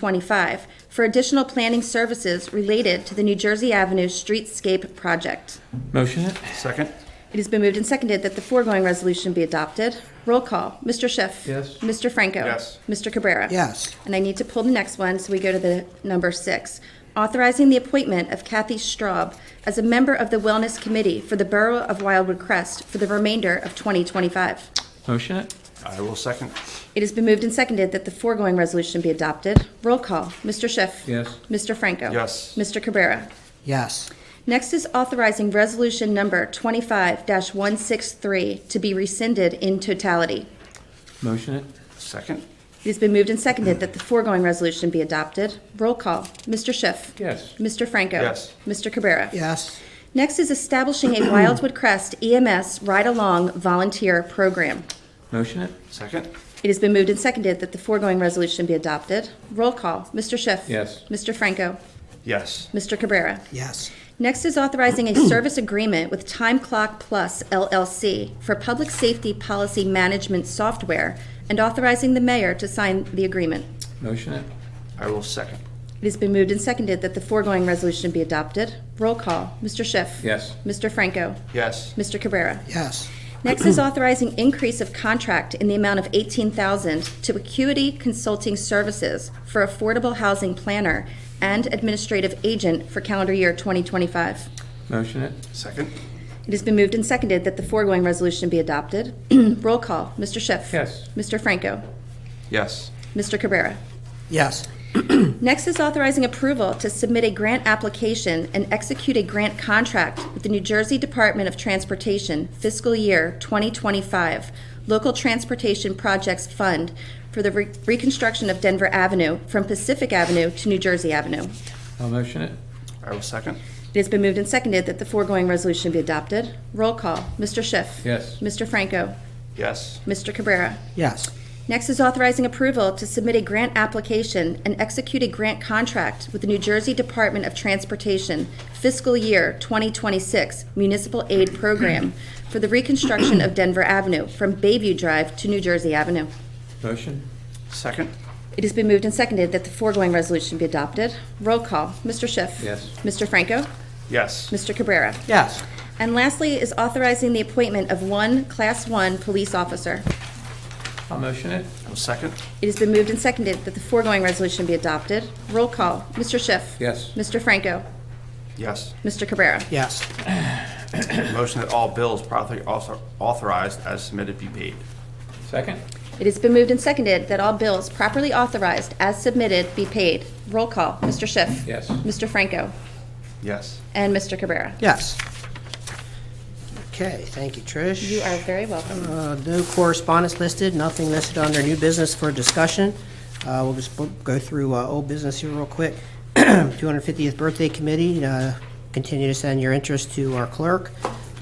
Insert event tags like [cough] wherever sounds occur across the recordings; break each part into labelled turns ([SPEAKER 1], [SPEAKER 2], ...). [SPEAKER 1] 2025 for additional planning services related to the New Jersey Avenue Streetscape Project.
[SPEAKER 2] Motion it?
[SPEAKER 3] Second?
[SPEAKER 1] It has been moved and seconded that the foregoing resolution be adopted. Roll call, Mr. Schiff.
[SPEAKER 2] Yes.
[SPEAKER 1] Mr. Franco.
[SPEAKER 3] Yes.
[SPEAKER 1] Mr. Cabrera.
[SPEAKER 4] Yes.
[SPEAKER 1] And I need to pull the next one, so we go to the number six. Authorizing the appointment of Kathy Straub as a member of the Wellness Committee for the Borough of Wildwood Crest for the remainder of 2025.
[SPEAKER 2] Motion it?
[SPEAKER 3] I will second.
[SPEAKER 1] It has been moved and seconded that the foregoing resolution be adopted. Roll call, Mr. Schiff.
[SPEAKER 2] Yes.
[SPEAKER 1] Mr. Franco.
[SPEAKER 3] Yes.
[SPEAKER 1] Mr. Cabrera.
[SPEAKER 4] Yes.
[SPEAKER 1] Next is authorizing resolution number 25-163 to be rescinded in totality.
[SPEAKER 2] Motion it?
[SPEAKER 3] Second?
[SPEAKER 1] It has been moved and seconded that the foregoing resolution be adopted. Roll call, Mr. Schiff.
[SPEAKER 2] Yes.
[SPEAKER 1] Mr. Franco.
[SPEAKER 3] Yes.
[SPEAKER 1] Mr. Cabrera.
[SPEAKER 4] Yes.
[SPEAKER 1] Next is establishing a Wildwood Crest EMS Ride-Along Volunteer Program.
[SPEAKER 2] Motion it?
[SPEAKER 3] Second?
[SPEAKER 1] It has been moved and seconded that the foregoing resolution be adopted. Roll call, Mr. Schiff.
[SPEAKER 2] Yes.
[SPEAKER 1] Mr. Franco.
[SPEAKER 3] Yes.
[SPEAKER 1] Mr. Cabrera.
[SPEAKER 4] Yes.
[SPEAKER 1] Next is authorizing
[SPEAKER 2] [clears throat]
[SPEAKER 1] a service agreement with Time Clock Plus LLC for public safety policy management software and authorizing the mayor to sign the agreement.
[SPEAKER 2] Motion it?
[SPEAKER 3] I will second.
[SPEAKER 1] It has been moved and seconded that the foregoing resolution be adopted. Roll call, Mr. Schiff.
[SPEAKER 2] Yes.
[SPEAKER 1] Mr. Franco.
[SPEAKER 3] Yes.
[SPEAKER 1] Mr. Cabrera.
[SPEAKER 4] Yes.
[SPEAKER 1] Next is authorizing increase of contract in the amount of 18000 to Acuity Consulting Services for Affordable Housing Planner and Administrative Agent for calendar year 2025.
[SPEAKER 2] Motion it?
[SPEAKER 3] Second?
[SPEAKER 1] It has been moved and seconded that the foregoing resolution be adopted. [clears throat] Roll call, Mr. Schiff.
[SPEAKER 2] Yes.
[SPEAKER 1] Mr. Franco.
[SPEAKER 3] Yes.
[SPEAKER 1] Mr. Cabrera.
[SPEAKER 4] Yes.
[SPEAKER 1] Next is authorizing approval to submit a grant application and execute a grant contract with the New Jersey Department of Transportation fiscal year 2025 Local Transportation Projects Fund for the re- reconstruction of Denver Avenue from Pacific Avenue to New Jersey Avenue.
[SPEAKER 2] I'll motion it?
[SPEAKER 3] I will second.
[SPEAKER 1] It has been moved and seconded that the foregoing resolution be adopted. Roll call, Mr. Schiff.
[SPEAKER 2] Yes.
[SPEAKER 1] Mr. Franco.
[SPEAKER 3] Yes.
[SPEAKER 1] Mr. Cabrera.
[SPEAKER 4] Yes.
[SPEAKER 1] Next is authorizing approval to submit a grant application and execute a grant contract with the New Jersey Department of Transportation fiscal year 2026 Municipal Aid Program for the reconstruction of Denver Avenue from Bayview Drive to New Jersey Avenue.
[SPEAKER 2] Motion?
[SPEAKER 3] Second?
[SPEAKER 1] It has been moved and seconded that the foregoing resolution be adopted. Roll call, Mr. Schiff.
[SPEAKER 2] Yes.
[SPEAKER 1] Mr. Franco.
[SPEAKER 3] Yes.
[SPEAKER 1] Mr. Cabrera.
[SPEAKER 4] Yes.
[SPEAKER 1] And lastly is authorizing the appointment of one Class 1 police officer.
[SPEAKER 2] I'll motion it?
[SPEAKER 3] I will second.
[SPEAKER 1] It has been moved and seconded that the foregoing resolution be adopted. Roll call, Mr. Schiff.
[SPEAKER 2] Yes.
[SPEAKER 1] Mr. Franco.
[SPEAKER 3] Yes.
[SPEAKER 1] Mr. Cabrera.
[SPEAKER 4] Yes.
[SPEAKER 3] Motion that all bills properly author- authorized as submitted be paid.
[SPEAKER 2] Second?
[SPEAKER 1] It has been moved and seconded that all bills properly authorized as submitted be paid. Roll call, Mr. Schiff.
[SPEAKER 2] Yes.
[SPEAKER 1] Mr. Franco.
[SPEAKER 3] Yes.
[SPEAKER 1] And Mr. Cabrera.
[SPEAKER 4] Yes. Okay, thank you, Trish.
[SPEAKER 1] You are very welcome.
[SPEAKER 4] Uh, No correspondence listed, nothing listed under new business for discussion. Uh, We'll just bo- go through uh, old business here real quick. [clears throat] 250th Birthday Committee, uh, continue to send your interest to our clerk.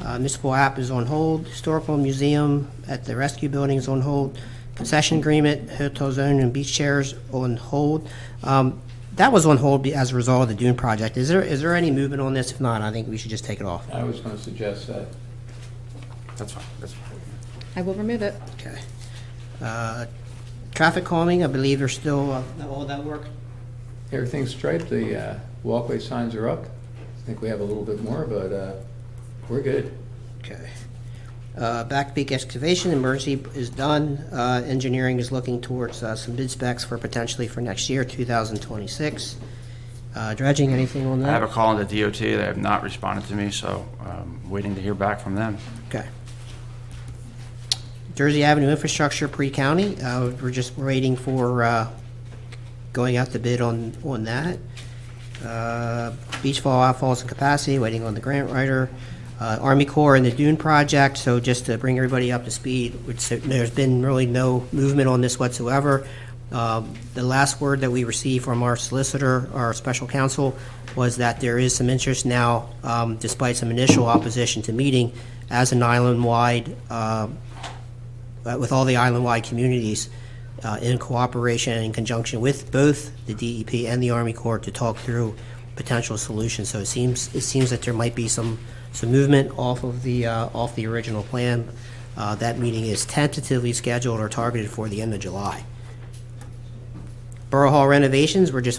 [SPEAKER 4] Uh, Municipal app is on hold, Historical Museum at the Rescue Building is on hold, concession agreement, hotel zone and beach chairs on hold. Um, That was on hold be- as a result of the Dune project. Is there, is there any movement on this? If not, I think we should just take it off.
[SPEAKER 2] I was gonna suggest that.
[SPEAKER 3] That's fine. That's fine.
[SPEAKER 1] I will remove it.
[SPEAKER 4] Okay. Uh, Traffic calming, I believe are still, uh, all that work?
[SPEAKER 2] Everything's striped, the uh, walkway signs are up. I think we have a little bit more, but uh, we're good.
[SPEAKER 4] Okay. Uh, Back peak excavation, emergency is done. Uh, Engineering is looking towards uh, some bid specs for potentially for next year, 2026. Uh, Dredging, anything on
[SPEAKER 3] I have a
[SPEAKER 4] that?
[SPEAKER 3] call on the DOT. They have not responded to me, so I'm waiting to hear back from them.
[SPEAKER 4] Okay. Jersey Avenue infrastructure, pre-county, uh, we're just waiting for uh, going out to bid on, on that. Uh, Beach fall outfalls and capacity, waiting on the grant writer. Uh, Army Corps and the Dune project, so just to bring everybody up to speed, which there's been really no movement on this whatsoever. Um, The last word that we received from our solicitor, our special counsel, was that there is some interest now, um, despite some initial opposition to meeting, as an island-wide um, uh, with all the island-wide communities uh, in cooperation and in conjunction with both the DEP and the Army Corps to talk through potential solutions. So it seems, it seems that there might be some, some movement off of the, uh, off the original plan. Uh, That meeting is tentatively scheduled or targeted for the end of July. Borough Hall renovations, we're just